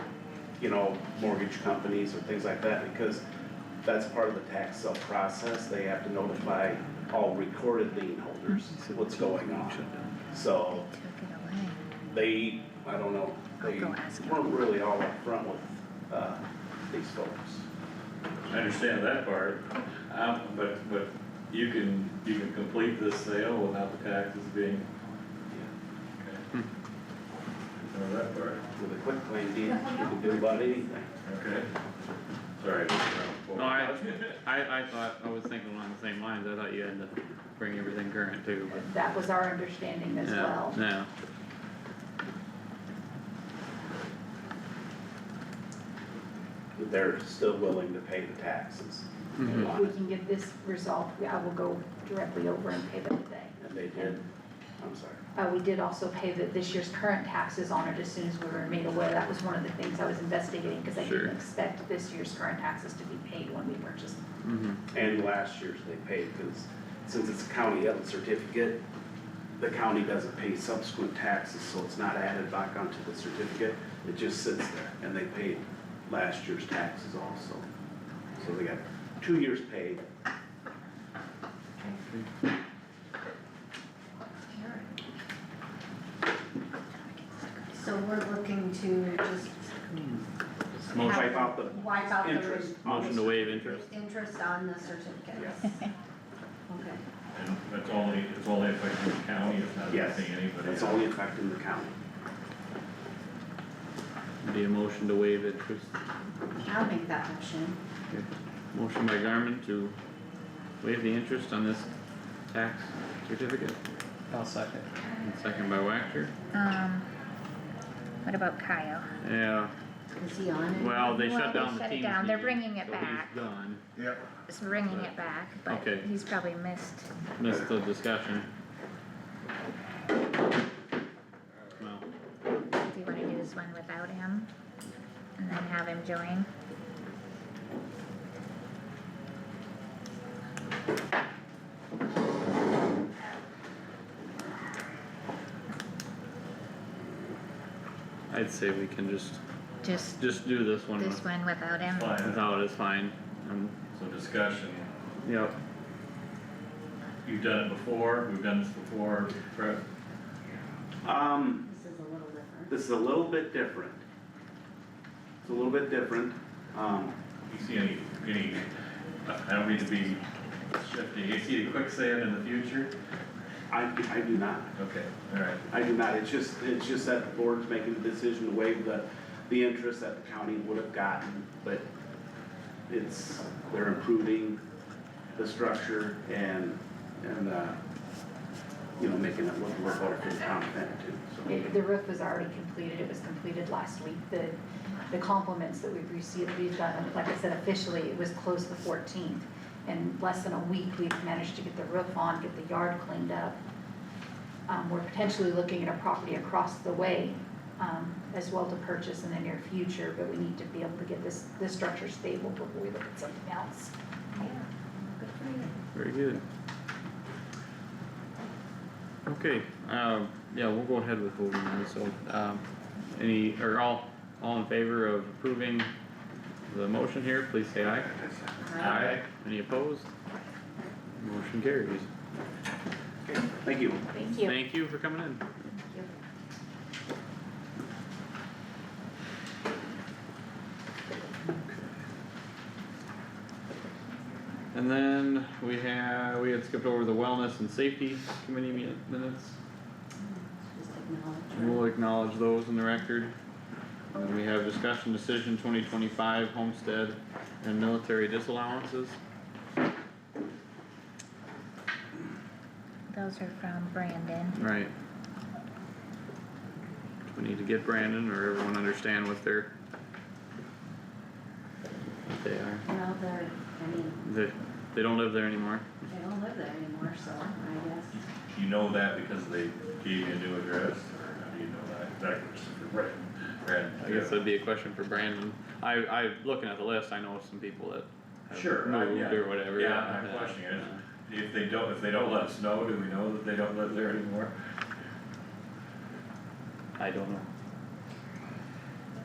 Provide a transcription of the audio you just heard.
you know, mortgage companies or things like that, because that's part of the tax sale process, they have to notify all recorded lien holders what's going on. So, Took it away. they, I don't know, they I'll go ask him. weren't really all upfront with, uh, these folks. I understand that part, um, but, but you can, you can complete this sale without the taxes being. okay. Know that part, With a quick claim deed, you can do about anything. okay? Sorry. No, I- I, I thought, I was thinking along the same lines, I thought you had to bring everything current too, but. That was our understanding as yeah, well. Yeah, They're still willing to pay the taxes. they Mhm. If we want, can get this resolved, we- I will go directly over and pay them today. And they did, I'm sorry. Uh, we did also pay the, this year's current taxes on it as soon as we were made aware. That was one of the things I was investigating, cause I Sure. didn't expect this year's current taxes to be paid when we purchased. mhm, And last year's they paid, cause since it's a county held certificate, the county doesn't pay subsequent taxes, so it's not added back onto the certificate. It just sits there, and they paid last year's taxes also. So they got two years paid, So we're looking to just. Motion. have- wipe out the Wipe out the. interest. motion to waive interest, Interest on the certificates. Okay. And it's only, it's only affecting the county, it's not Yes, affecting anybody. It's else. only affecting the county. be a motion to waive interest, I'll make that motion. motion by Garmin to waive the interest on this tax certificate, I'll second. and second by Wactor, Um, what about Kyle? yeah, Is he on it? well, they Well, shut they down the shut it team's down. They're meeting, bringing it so he's back. Gone, It's bringing it back, but Okay. he's probably missed. missed the discussion. Well, Do you wanna do this one without him? And then have him join? I'd say we can just, Just just do this one this one without him? Fine, without, it's fine, um, so discussion, yep. you've done it before, we've done this before, Brett, Um, This is a little different. this is a little bit different. It's a little bit different, um, you see any, any, I don't mean to be shifty, you see the quicksand in the future? I, I do not, Okay, alright. I do not, it's just, it's just that the board's making the decision to waive the, the interest that the county would have gotten, but it's, they're improving the structure and, and, uh, you know, making it look a little better for the town of Manitou, so. It- The roof was already completed, it was completed last week, the, the compliments that we've received, we've gotten, like I said, officially, it was closed the fourteenth. In less than a week, we've managed to get the roof on, get the yard cleaned up. Um, we're potentially looking at a property across the way, um, as well to purchase in the near future, but we need to be able to get this, this structure stable before we look at something else. Very good. Okay, um, yeah, we'll go ahead with voting on this, so, um, any, or all, all in favor of approving the motion here, please say aye. Any opposed? Motion carries. Okay, thank you. Thank you. Thank you for coming in. you. And then we have, we had skipped over the wellness and safety committee mi- minutes. Just acknowledge. We'll acknowledge those in the record. And then we have discussion decision twenty twenty-five homestead and military disallowances. Those are from Brandon. Right. Do we need to get Brandon or everyone understand what they're? What they are. Well, they're, I mean, They, they don't live there anymore. they don't live there anymore, so I guess. You know that because they gave you a new address, or how do you know that? That was written, written. I guess that'd be a question for Brandon. I, I, looking at the list, I know some people that Sure, have right, moved yeah. or whatever. Yeah, I'm not questioning it. If they don't, if they don't let us know, do we know that they don't live there anymore? I don't know.